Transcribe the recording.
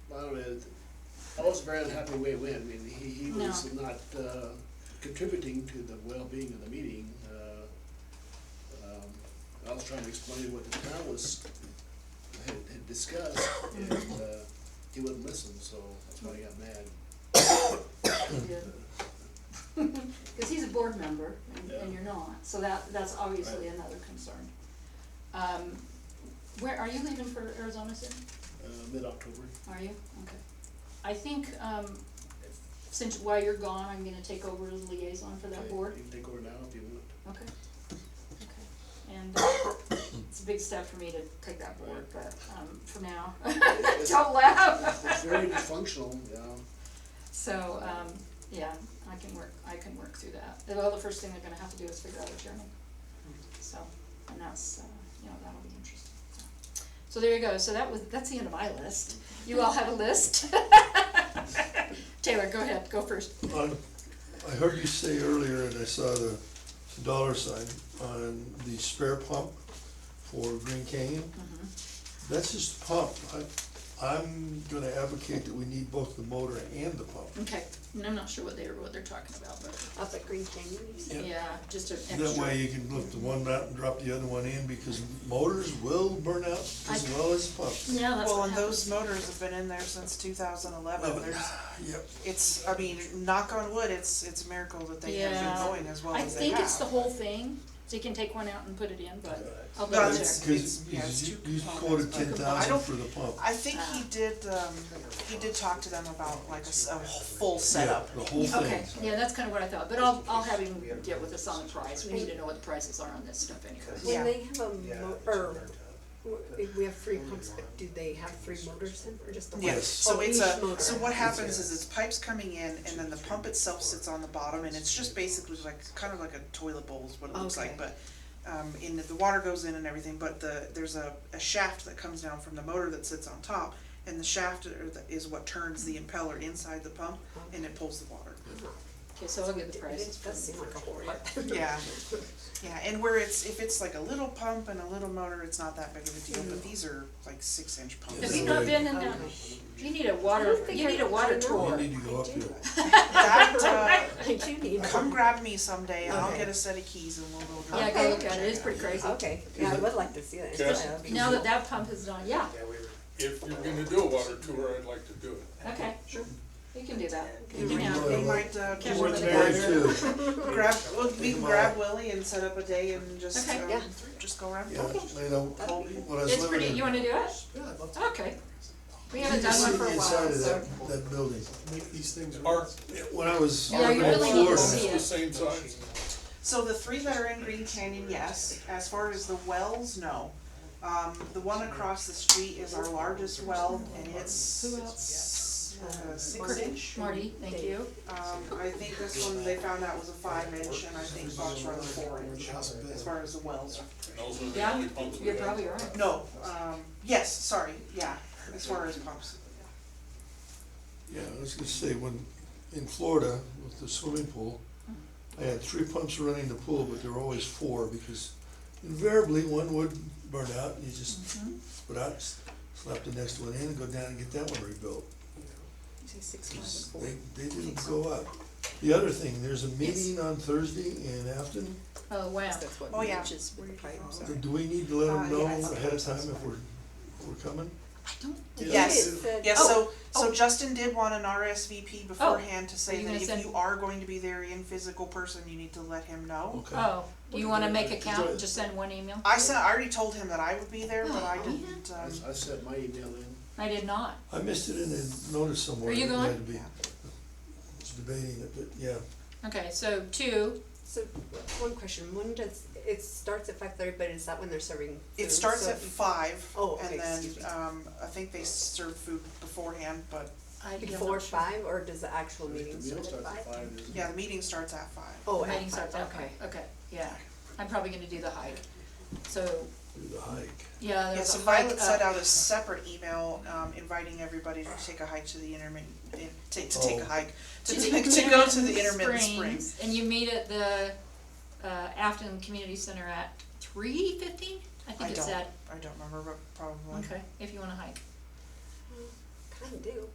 I wasn't very unhappy the way it went, I mean, he, he No. was not, uh, contributing to the well-being of the meeting, uh, um, I was trying to explain what the town was, had, had discussed, and, Mm-hmm. uh, he wouldn't listen, so that's why he got mad. Because he's a board member and- Yeah. and you're not, so that, that's obviously another concern. Um, Where, are you leaving for Arizona soon? Uh, mid-October, Are you? Okay. I think, um, since while you're gone, I'm gonna take over as liaison for that okay, board. you can take over now if you want. Okay, okay. And uh, it's a big step for me to take that board, but um, for now, don't It's laugh. very dysfunctional, yeah, So, um, yeah, I can work, I can work through that. Well, the first thing they're gonna have to do is figure out a chairman. So, and that's, uh, you know, that'll be interesting. So there you go. So that was, that's the end of my list. You all have a list? Taylor, go ahead, go first. I I heard you say earlier, and I saw the dollar sign on the spare pump for Green Canyon. Mm-hmm. That's just the pump. I, I'm gonna advocate that we need both the motor and the pump. Mm-hmm. Okay, and I'm not sure what they're, what they're talking about, but, Up at Green Canyon, you said? Yeah. yeah, just an extra. That way you can lift the one out and drop the other one in, because motors will burn out as I- well as pumps. Yeah, that's Well, what and those happens. motors have been in there since two thousand No, eleven, but- ah, there's, Yep, it's, I mean, knock on wood, it's, it's a miracle that they have Yeah. been going as well I as they have. think it's the whole thing, so you can take one out and put it in, but I'll No, double check. it's- it's- because yeah, it's you two you components, quoted but- ten I thousand don't- for the pump. I think Ah. he did, um, he did talk to them about like a, s- a full setup. Yeah, the whole thing. Okay, yeah, that's kind of what I thought, but I'll, I'll have him get with us on the price, we need to know what the prices are on this stuff anyways. Yeah. When they have a mo- or, w- we have three pumps, but do they have three motors in, or just the one? Yeah, Yes. so Oh, it's each a, motor. so what happens is it's pipes coming in and then the pump itself sits on the bottom and it's just basically like, kind of like a toilet bowl is what it looks like, Okay. but um, in the, the water goes in and everything, but the, there's a, a shaft that comes down from the motor that sits on top and the shaft are the- is what turns the impeller inside the pump and it pulls the water. Okay, so I'll get the It prices. does seem like a whole lot. Yeah, yeah, and where it's, if it's like a little pump and a little motor, it's not that big of a deal, but these are like six inch pumps. Have you not been in that, you need a water, don't think you I- need a water I know. tour. You need to go up I do. there. That, uh, I do need. Come one. grab me someday and I'll Okay. get a set of keys and we'll go Yeah, drive. go look at it, it's pretty crazy. Okay, yeah, I would like to see that, yeah, Yes. that'd be. Now that that pump is done, yeah, If you're gonna do a water tour, I'd like to do it. okay, sure, you can do that, you Yeah, can we have, can They might, uh, Can't just wait put to it hear out it. there. Very true. grab, well, we can Come grab on. Willie and set up a day and just, Okay. um, Yeah. just go around. Yeah, you know, That'd be- when I was it's pretty, living you in. wanna do it? Yeah, I'd love to Okay, we haven't done one for a You can see the while, Inside so, of that, that building. make these things Are, work. When I was Yeah, living you in really need to see Florida, the same size? So the three that are in Green Canyon, yes. As far as the wells, no. Um, the one across the street is our largest well and it's. Who else? Uh, six inch. Marty, thank you. Um, I think this one, they found out was a five inch and I think Fox Run a four inch, House of as bed. far as the wells are Those are the Yeah, only pumps we You're have. probably right. No, um, yes, sorry, yeah, as far as pumps. yeah, I was gonna say, when, in Florida, with the swimming pool, I had three pumps running the pool, but there were always four, because invariably, one would burn out, and you just Mm-hmm. put out, s- slap the next one in, and go down and get that one rebuilt. You say six, five, and four. They, they didn't go up. The other thing, there's a meeting on Thursday in Afton, Oh, wow. That's what Oh, yeah. matches with the pipe, so. do we need to let Uh, them know yeah, I thought ahead of time if we're, if we're coming? Yes. It said- Yes, Oh, so, so oh. Justin did want an RSVP beforehand to Are say you that gonna if send- you are going to be there in physical person, you need to let him know. Okay. Oh, do you wanna make a count and just send one email? I sent, I already told him that I would be there, but I Oh, didn't, I, um, I sent my email in. I did not. I missed it in the notice somewhere. Are you It going? had to be- was debating it, but yeah, Okay, so two, So, one question, when does, it starts at five thirty, but is that when they're serving food? it starts So- at five. Oh, okay, And then, excuse me. um, I think they serve food beforehand, but, I did not. sure. Before five, or does the actual The meeting meal start at starts at five? five, isn't it? yeah, the meeting starts at five. Oh, Meeting at starts five, at okay. five, okay, yeah. I'm probably gonna do the hike. So, through the hike. yeah, Yeah, there's so a hike Violet up. sent out a separate email, um, inviting everybody to take a hike to the intermittent, in- take, to take a Oh. hike, to the take, to go to Intermittent the intermittent springs. And you meet at the, uh, Afton Community Center at three fifteen? I I think it's don't, at, I don't remember, but probably. okay, if you wanna hike. Kinda do.